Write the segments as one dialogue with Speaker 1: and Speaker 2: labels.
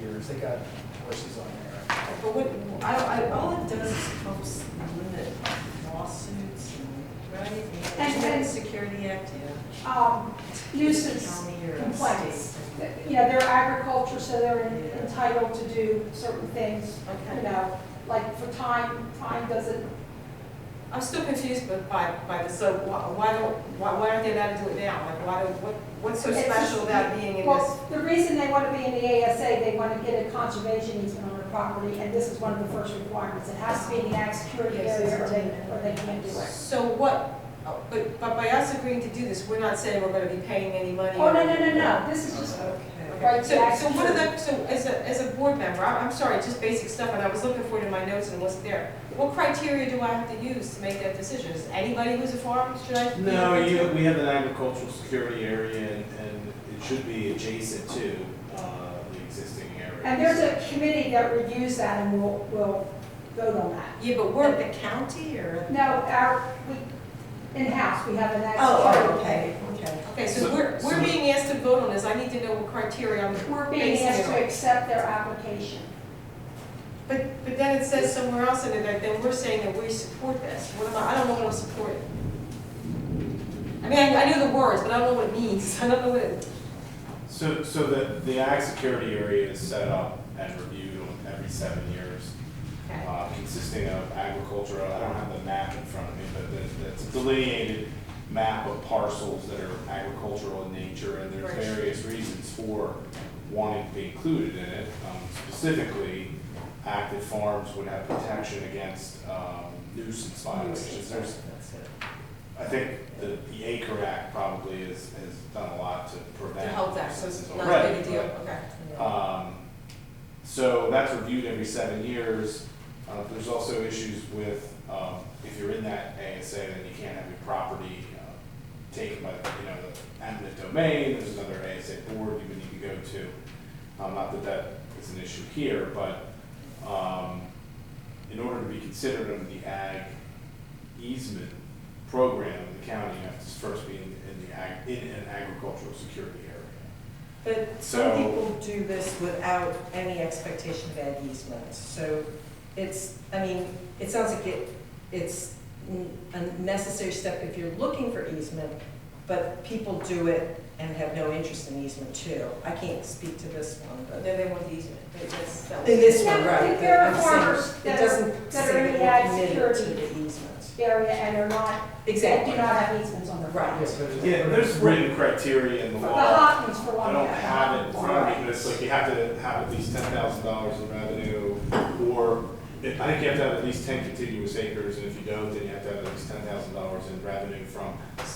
Speaker 1: because they got horses on there.
Speaker 2: But what, I, I, all it does is helps limit lawsuits and, right?
Speaker 3: And- and-
Speaker 2: Security Act, yeah.
Speaker 3: um, nuisance
Speaker 2: County or
Speaker 3: complaints.
Speaker 2: state.
Speaker 3: Yeah, they're agriculture, so they're entitled to do certain things, you
Speaker 2: Okay.
Speaker 3: know, like for time, time doesn't,
Speaker 2: I'm still confused but by, by this, so why, why don't, why, why aren't they allowed to do it now? Like, why, don't- what, what's so
Speaker 3: It's just-
Speaker 2: special about being in this?
Speaker 3: well, the reason they want to be in the ASA, they want to get a conservation easement on their property, and this is one of the first requirements. It has to be in the ag security
Speaker 2: Yes,
Speaker 3: area or
Speaker 2: it's
Speaker 3: they,
Speaker 2: in
Speaker 3: or they can't do it.
Speaker 2: So what, oh, but, but by us agreeing to do this, we're not saying we're gonna be paying any money.
Speaker 3: Oh, no, no, no, no, this is just,
Speaker 2: Okay,
Speaker 3: Right,
Speaker 2: so,
Speaker 3: yeah,
Speaker 2: so what are
Speaker 3: sure.
Speaker 2: the, so as a, as a board member, I'm, I'm sorry, just basic stuff, and I was looking for it in my notes and it wasn't there. What criteria do I have to use to make that decision? Is anybody who's a farm, should I? be
Speaker 4: No,
Speaker 2: looking
Speaker 4: you,
Speaker 2: to?
Speaker 4: we have an agricultural security area and, and it should be adjacent to, uh, the existing area.
Speaker 3: and there's a committee that reviews that and will, will vote on that.
Speaker 2: Yeah, but we're the county or?
Speaker 3: No, our, we, in-house, we have an ag.
Speaker 5: Oh,
Speaker 3: security.
Speaker 5: okay, okay.
Speaker 2: Okay, so
Speaker 4: So-
Speaker 2: we're,
Speaker 4: so-
Speaker 2: we're being asked to vote on this, I need to know what criteria I'm
Speaker 3: We're being
Speaker 2: basing
Speaker 3: asked
Speaker 2: it
Speaker 3: to
Speaker 2: on.
Speaker 3: accept their application.
Speaker 2: But, but then it says somewhere else in it that then we're saying that we support this. What am I, I don't know what I'm supporting. I mean, I, I know the words, but I don't know what it means, I don't know what it,
Speaker 4: So, so the, the ag security area is set up and reviewed on every seven years,
Speaker 2: okay.
Speaker 4: uh, consisting of agriculture, I don't have the map in front of me, but there's, that's a delineated map of parcels that are agricultural in nature, and there's
Speaker 2: Right.
Speaker 4: various reasons for wanting to be included in it. Um, Specifically, active farms would have protection against, um, nuisance violations, there's,
Speaker 2: That's it.
Speaker 4: I think the, the Acre Act probably has, has done a lot to
Speaker 2: To
Speaker 4: prevent.
Speaker 2: help that, so it's
Speaker 4: nuisance.
Speaker 2: not a big
Speaker 4: Right,
Speaker 2: deal,
Speaker 4: right.
Speaker 2: okay.
Speaker 4: Um, so that's reviewed every seven years. Uh, there's also issues with, um, if you're in that ASA, then you can't have your property, uh, taken by, you know, the eminent domain, there's another ASA board you would need to go to. Um, not that that is an issue here, but, um, in order to be considered under the ag easement program in the county, you have to first be in, in the ag, in an agricultural security area.
Speaker 5: But
Speaker 4: So-
Speaker 5: some people do this without any expectation of an easement, so it's, I mean, it sounds like it, it's n- a necessary step if you're looking for easement, but people do it and have no interest in easement too. I can't speak to this one,
Speaker 2: But
Speaker 5: but.
Speaker 2: then they want the easement, they just, that was.
Speaker 5: In this one,
Speaker 3: Yeah,
Speaker 5: right.
Speaker 3: there are
Speaker 5: I'm saying
Speaker 3: farmers that
Speaker 5: It
Speaker 3: are-
Speaker 5: doesn't
Speaker 3: that are in
Speaker 5: say
Speaker 3: the
Speaker 5: that
Speaker 3: ag
Speaker 5: we're committed to
Speaker 3: security.
Speaker 5: the easement.
Speaker 3: area and are not, they do
Speaker 5: Exactly.
Speaker 3: not have easements on their property.
Speaker 5: Right.
Speaker 4: Yeah, there's written criteria in the
Speaker 3: The
Speaker 4: law.
Speaker 2: Uh-huh.
Speaker 3: Hoffmans for one.
Speaker 4: I don't have it in front of me, but it's like you have to have at least ten thousand dollars in revenue, or I think you have to have at least ten contiguous acres, and if you don't, then you have to have at least ten thousand dollars in revenue from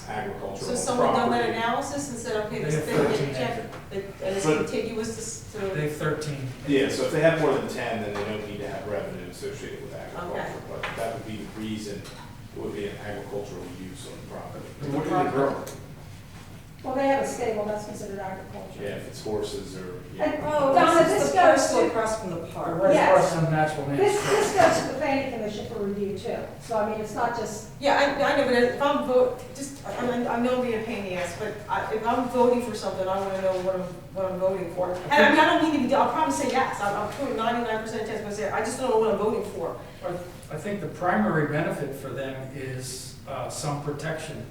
Speaker 4: agricultural property.
Speaker 2: So someone done that analysis and said, okay, this
Speaker 1: They
Speaker 2: thing,
Speaker 1: have 13
Speaker 2: yeah, and it's
Speaker 4: But-
Speaker 2: contiguous to, s- to.
Speaker 1: They have thirteen.
Speaker 4: Yeah, so if they have more than ten, then they don't need to have revenue associated with
Speaker 2: Okay.
Speaker 4: agriculture, but that would be the reason it would be an agricultural use on the property.
Speaker 1: What do they grow?
Speaker 3: Well, they have a stable, that's considered agriculture.
Speaker 4: Yeah, if it's horses or,
Speaker 3: And-
Speaker 4: yeah.
Speaker 5: Oh,
Speaker 3: Donna,
Speaker 5: this
Speaker 3: this
Speaker 5: is the
Speaker 3: goes
Speaker 5: parcel
Speaker 3: to-
Speaker 5: across from the park.
Speaker 1: Right
Speaker 3: Yes.
Speaker 1: across some natural names.
Speaker 3: This, this goes to the planning commission for review too, so I mean, it's not just,
Speaker 2: Yeah, I, I know, but if I'm vote, just, I, I I know I'm being a pain in the ass, but I, if I'm voting for something, I wanna know what I'm, what I'm voting for. And I mean, I don't mean to be, I'll probably say yes, I'm, I'm putting ninety-nine percent chance, but I say, I just don't know what I'm voting for.
Speaker 1: I think the primary benefit for them is uh, some protection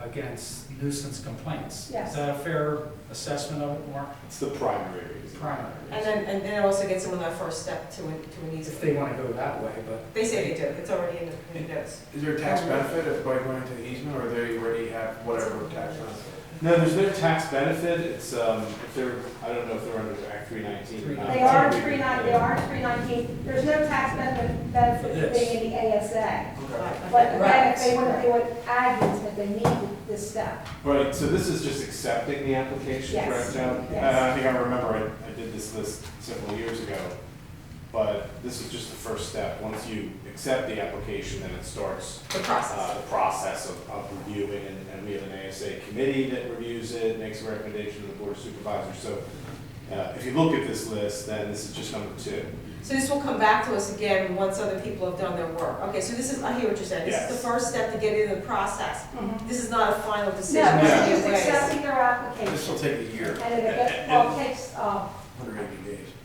Speaker 1: against nuisance complaints.
Speaker 3: Yes.
Speaker 1: Is that a fair assessment of it, Mark?
Speaker 4: It's the primary reason.
Speaker 1: Primary.
Speaker 2: And then, and then it also gets them on that first step to, an- to an
Speaker 1: If
Speaker 2: easement.
Speaker 1: they want to go that way, but
Speaker 2: They say they do, it's already in the, in the notes.
Speaker 6: Is there a tax benefit if by going into the easement, or they already have whatever tax benefit?
Speaker 4: No, there's no tax benefit, it's, um, if they're, I don't know if they're under Act three nineteen or not.
Speaker 3: they are in three nine, they are in three nineteen, there's no tax benefit, benefit for
Speaker 1: Yes.
Speaker 3: being in the ASA.
Speaker 6: Okay.
Speaker 3: But again, if they
Speaker 5: Right.
Speaker 3: want, they want ag easement, they need this step.
Speaker 4: Right, so this is just accepting the application,
Speaker 3: Yes,
Speaker 4: correct, John?
Speaker 3: yes.
Speaker 4: Uh, I think I remember, I, I did this list several years ago, but this is just the first step. Once you accept the application, then it starts
Speaker 2: The process.
Speaker 4: uh, the process of, of reviewing, and, and we have an ASA committee that reviews it, makes a recommendation to the board of supervisors. So, uh, if you look at this list, then this is just number two.
Speaker 2: So this will come back to us again once other people have done their work. Okay, so this is, I hear what you're saying. This is
Speaker 4: Yes.
Speaker 2: the first step to get into the process.
Speaker 5: Mm-hmm.
Speaker 2: This is not a final decision.
Speaker 3: No,
Speaker 4: Yeah.
Speaker 3: it's
Speaker 2: Either
Speaker 3: just
Speaker 2: way.
Speaker 3: accepting their
Speaker 6: This will
Speaker 3: application,
Speaker 6: take a year.
Speaker 3: and it, well, it takes, uh,
Speaker 6: Hundred eighty